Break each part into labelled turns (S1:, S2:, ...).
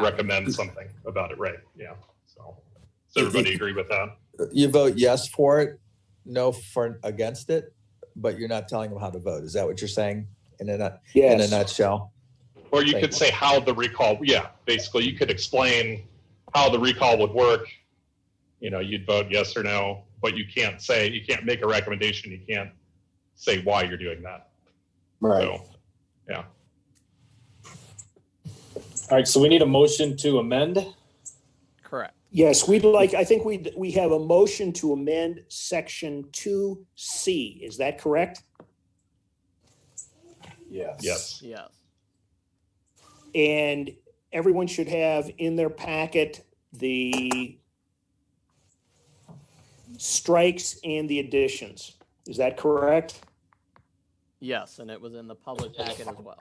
S1: recommend something about it, right? Yeah. So, does everybody agree with that?
S2: You vote yes for it, no for against it, but you're not telling them how to vote. Is that what you're saying? In a nut- in a
S3: Yes.
S2: nutshell.
S1: Or you
S2: Right.
S1: could say how the recall, yeah, basically, you could explain how the recall would work. You know, you'd vote yes or no, but you can't say, you can't make a recommendation, you can't say why you're doing that.
S3: Right.
S1: So,
S4: All right, so we need a motion to amend.
S5: Correct.
S6: Yes, we'd like, I think we, we have a motion to amend section two C. Is that correct?
S3: Yes.
S1: yes,
S5: Yes.
S6: And everyone should have in their packet the strikes and the additions. Is that correct?
S5: Yes, and it was in the public packet as well.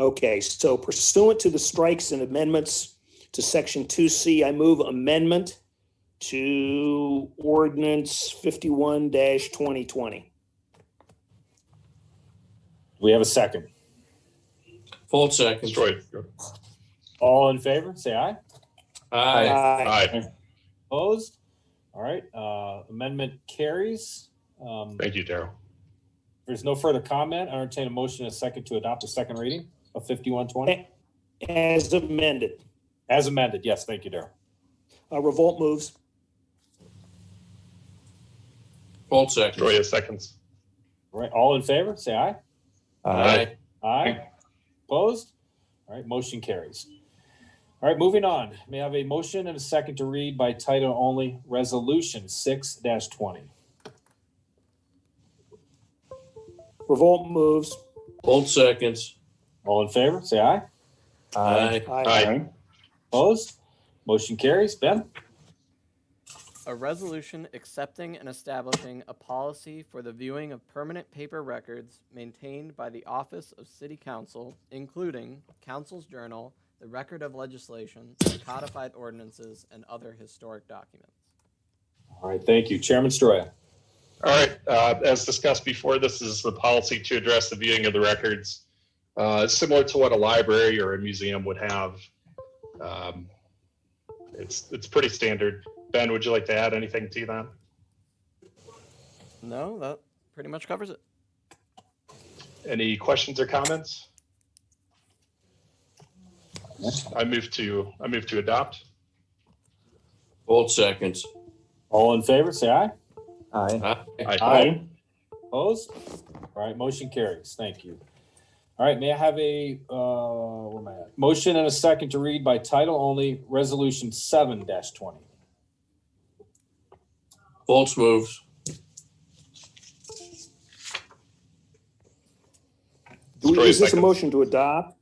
S6: Okay, so pursuant to the strikes and amendments to section two C, I move amendment to ordinance fifty-one twenty twenty.
S4: We have a second.
S7: Full second.
S1: destroyed.
S4: All in favor, say aye.
S7: Aye.
S1: Aye,
S4: Opposed? All right, uh, amendment carries. Um,
S1: thank you, Daryl.
S4: if there's no further comment. I entertain a motion and a second to adopt a second reading of 5120
S6: As amended,
S4: as amended. Yes, thank you, Darrell.
S6: uh, revolt moves.
S7: Full second.
S1: Troy seconds.
S4: All right, all in favor, say aye.
S2: Uh,
S4: Aye. Opposed? All right, motion carries. All right, moving on. May I have a motion and a second to read by title only, Resolution 6 20.
S6: Revolt moves.
S7: Full seconds.
S4: All in favor, say aye.
S7: Aye.
S1: Aye,
S4: Opposed? Motion carries. Ben?
S5: A resolution accepting and establishing a policy for the viewing of permanent paper records maintained by the Office of City Council, including Council's Journal, the Record of Legislation, codified ordinances, and other historic documents.
S4: All right, thank you. Chairman Stroya.
S1: All right, uh, as discussed before, this is the policy to address the viewing of the records, uh, similar to what a library or a museum would have. Um, It's, it's pretty standard. Ben, would you like to add anything to that?
S5: No, that pretty much covers it.
S1: Any questions or comments? I move to, I move to adopt.
S7: Full seconds.
S4: All in favor, say aye.
S2: Aye.
S7: Aye.
S4: Aye. Opposed? All right, motion carries. Thank you. All right, may I have a, uh, where am I at? Motion and a second to read by title only, Resolution 7 20.
S7: Foltz moves.
S6: Do we-
S1: Troy
S6: Is this a
S1: seconds.
S6: motion to adopt?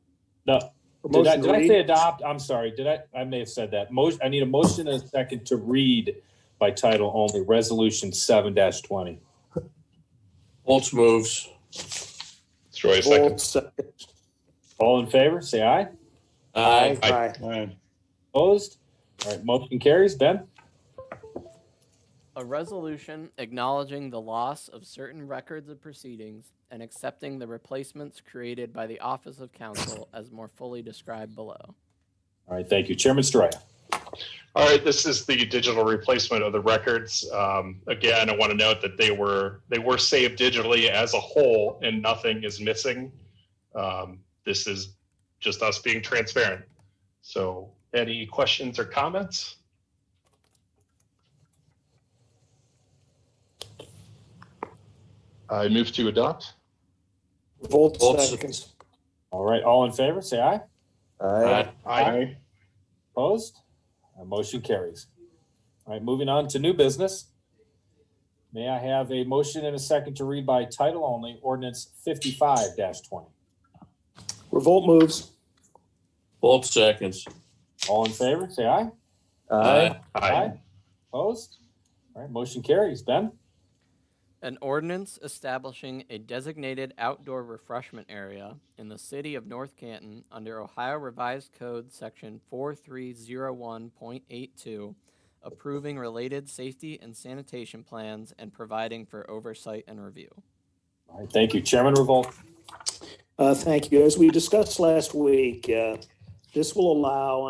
S4: No,
S6: Or
S4: Did I,
S6: motion to
S4: did I say
S6: read?
S4: adopt? I'm sorry. Did I? I may have said that. Motion. I need a motion and a second to read by title only. Resolution seven twenty.
S7: Foltz moves.
S1: Troy
S6: Revolt
S1: seconds.
S6: second.
S4: All in favor, say aye.
S7: Aye.
S6: Aye.
S4: Opposed? All right. Motion carries. Ben.
S5: A resolution acknowledging the loss of certain records of proceedings and accepting the replacements created by the Office of Council as more fully described below.
S4: All right. Thank you, Chairman Stroya.
S1: All right, this is the digital replacement of the records. Um, again, I want to note that they were they were saved digitally as a whole, and nothing is missing. Um, this is just us being transparent. So, any questions or comments? I move to adopt.
S6: Revolt
S7: Revolt
S6: seconds.
S4: All right. All in favor, say aye.
S2: Aye.
S4: Aye. Opposed? Uh, motion carries. All right. Moving on to new business. May I have a motion and a second to read by title only? Ordinance fifty-five twenty.
S6: Revolt moves.
S7: Foltz seconds.
S4: All in favor, say aye.
S7: Aye.
S1: Aye.
S4: Opposed? All right, motion carries. Ben?
S5: An ordinance establishing a designated outdoor refreshment area in the city of North Canton under Ohio Revised Code Section 4301.82, approving related safety and sanitation plans and providing for oversight and review.
S4: All right, thank you. Chairman Revolt.
S6: Uh, thank you. As we discussed last week, uh, this will allow